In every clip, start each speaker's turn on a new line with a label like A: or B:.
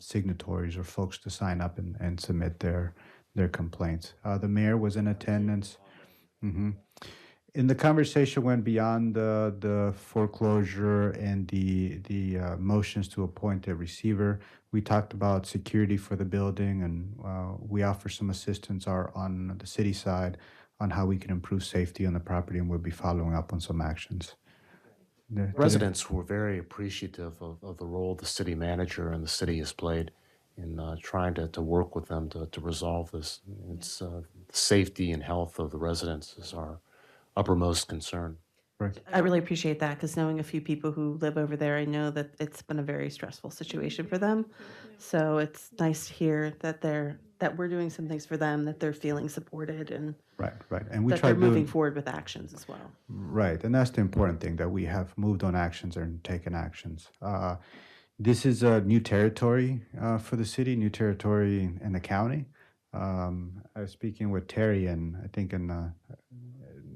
A: signatories or folks to sign up and, and submit their, their complaints. Uh, the mayor was in attendance. hmm And the conversation went beyond the, the foreclosure and the, the uh, motions to appoint a receiver. We talked about security for the building and uh, we offer some assistance are on the city side on how we can improve safety on the property and we'll be following up on some actions. The-
B: Residents were very appreciative of, of the role the city manager and the city has played in uh, trying to, to work with them to, to resolve this. It's uh, safety and health of the residents is our uppermost concern.
C: I really appreciate that because knowing a few people who live over there, I know that it's been a very stressful situation for them. So it's nice to hear that they're that we're doing some things for them, that they're feeling supported, and
A: Right, right. And we
C: that they're
A: try
C: moving
A: doing,
C: forward with actions as well.
A: right. And that's the important thing that we have moved on actions and taken actions. Uh, this is a new territory uh, for the city, new territory in the county. Um, I was speaking with Terry, and I think in uh,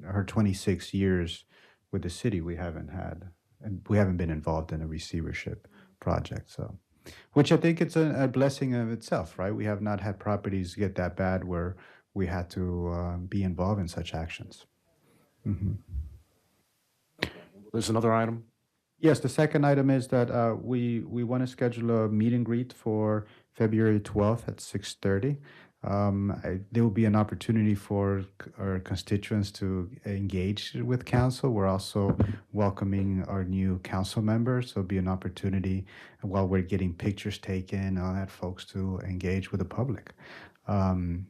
A: her 26 years with the city, we haven't had, and we haven't been involved in a receivership project. So, which I think it's a, a blessing of itself, right? We have not had properties get that bad where we had to uh, be involved in such actions. Mm-hmm.
B: There's another item.
A: Yes, the second item is that uh, we we want to schedule a meet and greet for February twelfth at six thirty. Um, I, there will be an opportunity for c- our constituents to engage with council. We're also welcoming our new council members, so it'll be an opportunity while we're getting pictures taken and all that, folks to engage with the public. Um,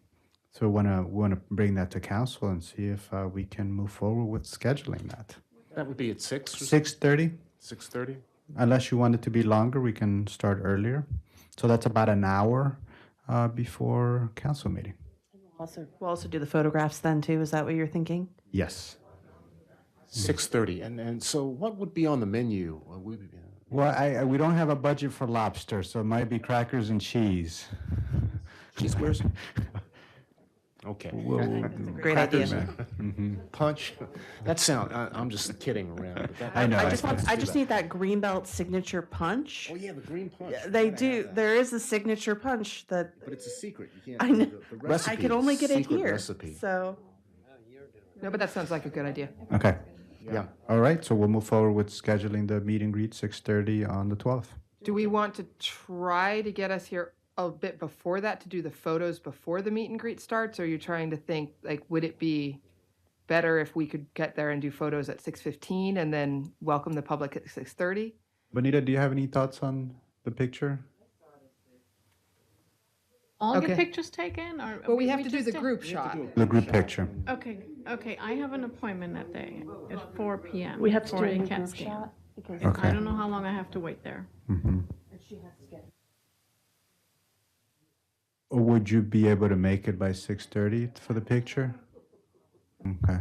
A: so want to want to bring that to council and see if uh, we can move forward with scheduling that
B: That would be at six,
A: six thirty.
B: six thirty?
A: Unless you want it to be longer, we can start earlier. So that's about an hour uh, before council meeting.
C: Also, we'll also do the photographs then too. Is that what you're thinking?
A: Yes.
B: Six thirty. And, and so what would be on the menu? Uh, we-
A: Well, I, I, we don't have a budget for lobster, so it might be crackers and cheese.
B: Cheese squares? Okay. Mm-hmm.
C: Great idea.
B: Punch? That sound, I, I'm just kidding around. but that-
A: I know.
C: I just want. I
B: do
C: just
B: that.
C: need that Greenbelt signature punch.
B: Oh, yeah, the green punch. You
C: They
B: gotta have
C: do.
B: that.
C: There is a signature punch that
B: But it's a secret. You
C: I
B: can't.
C: know.
B: the- the
C: I
B: recipe
C: could
B: is
C: only get it
B: secret
C: here.
B: Recipe.
C: So
D: No, but that sounds like a good idea.
A: Okay.
B: Yeah.
A: All right. So we'll move forward with scheduling the meet and greet six thirty on the twelfth.
D: Do we want to try to get us here a bit before that to do the photos before the meet and greet starts? Or are you trying to think like, would it be better if we could get there and do photos at six fifteen and then welcome the public at six thirty?
A: Bonita, do you have any thoughts on the picture?
E: all
D: Okay.
E: get pictures taken or
D: Well, we have to do
E: just
D: the
E: did-
D: group shot.
A: The group picture.
E: okay okay i have an appointment that day at 4 p.m
F: We have to
E: for
F: do it in
E: cat
F: group
E: scan.
F: shot because
A: Okay.
E: i don't know how long i have to wait there
A: Would you be able to make it by six thirty for the picture? Okay.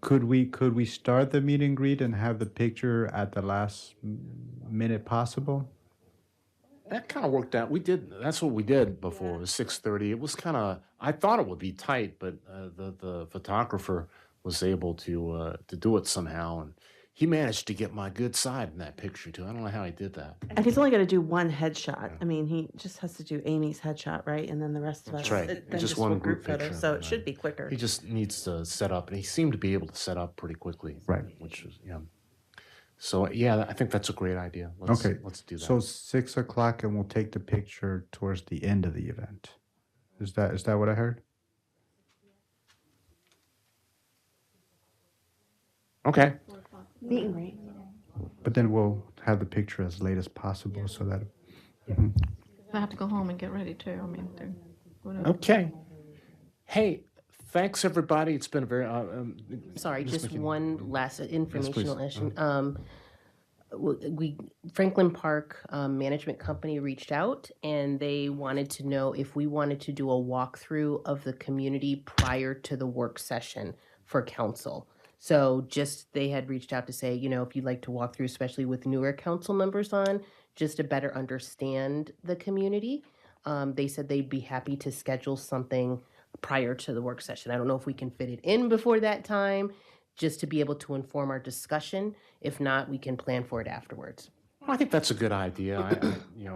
A: Could we, could we start the meet and greet and have the picture at the last m- minute possible?
B: That kind of worked out. We did. That's what we did before. It was six thirty. It was kind of. I thought it would be tight, but uh, the the photographer was able to uh, to do it somehow, and he managed to get my good side in that picture too. I don't know how he did that.
C: And he's only got to do one headshot. I mean, he just has to do Amy's headshot, right? And then the rest of us.
B: That's right.
C: it- then
B: Just
C: we'll
B: one group
C: photo,
B: picture,
C: So
B: right.
C: it should be quicker.
B: He just needs to set up, and he seemed to be able to set up pretty quickly.
A: Right.
B: Which is yeah. So yeah, I think that's a great idea. Let's,
A: Okay,
B: Let's do that.
A: So six o'clock and we'll take the picture towards the end of the event. Is that, is that what I heard?
B: okay.
F: meet and greet.
A: But then we'll have the picture as late as possible so that,
E: i have to go home and get ready too i mean they're- whatever.
B: Okay. Hey, thanks everybody. It's been a very. Uh, um,
F: Sorry,
B: Ms.
F: just
B: McKin-
F: one last informational
B: please.
F: issue. Um, w- we Franklin Park um, Management Company reached out and they wanted to know if we wanted to do a walkthrough of the community prior to the work session for council. So just they had reached out to say, you know, if you'd like to walk through, especially with newer council members on, just to better understand the community. Um, they said they'd be happy to schedule something prior to the work session. I don't know if we can fit it in before that time, just to be able to inform our discussion. If not, we can plan for it afterwards.
B: I think that's a good idea. I, I, you know.